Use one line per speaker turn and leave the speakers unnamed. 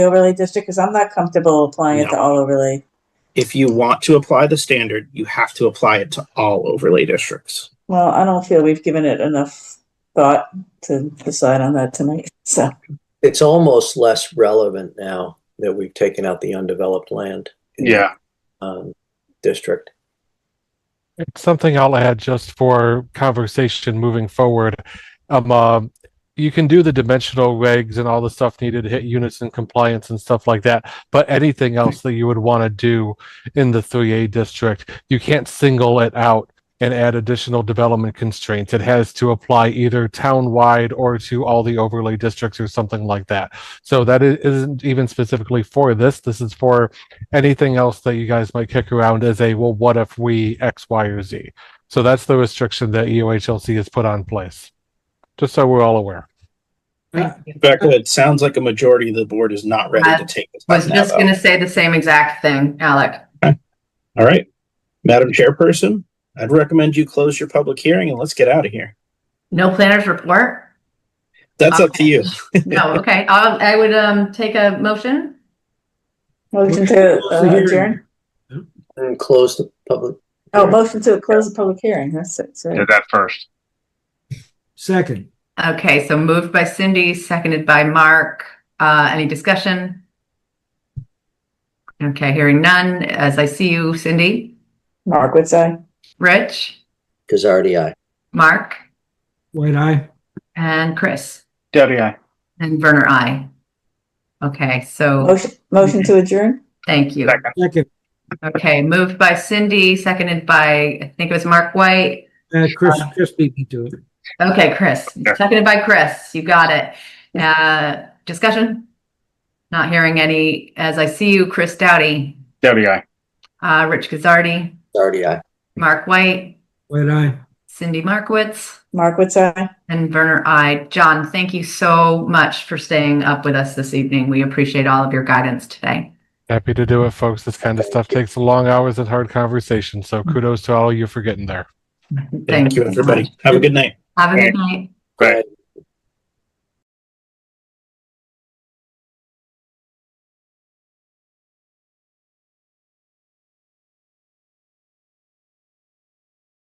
overlay district? Because I'm not comfortable applying it to all overlay.
If you want to apply the standard, you have to apply it to all overlay districts.
Well, I don't feel we've given it enough thought to decide on that tonight, so.
It's almost less relevant now that we've taken out the undeveloped land.
Yeah.
Um, district.
It's something I'll add just for conversation moving forward. Um, uh, you can do the dimensional regs and all the stuff needed to hit units and compliance and stuff like that, but anything else that you would want to do in the 3A district, you can't single it out and add additional development constraints. It has to apply either town-wide or to all the overlay districts or something like that. So that i- isn't even specifically for this. This is for anything else that you guys might kick around as a well what if we x y or z so that's the restriction that E eohlc has put on place just so we're all aware
Becca, it sounds like a majority of the board is not ready to take this.
Was
up now,
just
though.
gonna say the same exact thing, Alec.
All right. Madam Chairperson, I'd recommend you close your public hearing and let's get out of here.
No planners report?
That's up to you.
No, okay, I'll- I would, um, take a motion.
Motion to
Close the
uh,
hearing.
adjourn?
And close the public.
Oh, motion to close the public hearing, that's it, sorry.
Did that first.
Second,
Okay, so moved by Cindy, seconded by Mark. Uh, any discussion? Okay, hearing none. As I see you, Cindy,
Mark, what's I?
Rich,
Cazardi, aye.
Mark,
white eye.
and Chris,
Debbie, I.
and Werner, I. Okay, so
Motion, motion to adjourn?
thank you.
Second.
Second,
Okay, moved by Cindy, seconded by, I think it was Mark White.
uh, Chris, Chris beat me to it.
Okay, Chris,
Sure.
seconded by Chris. You got it. Uh, discussion? Not hearing any. As I see you, Chris Doughty,
Debbie, I.
uh, Rich Gazardi,
Cazardi, aye.
Mark White,
White eye.
Cindy Markowitz,
Mark, what's I?
and Werner I. John, thank you so much for staying up with us this evening. We appreciate all of your guidance today.
happy to do it folks this kind of stuff takes long hours and hard conversations so kudos to all of you for getting there
Thank you,
so much.
everybody. Have a good night.
Have a good night.
Right.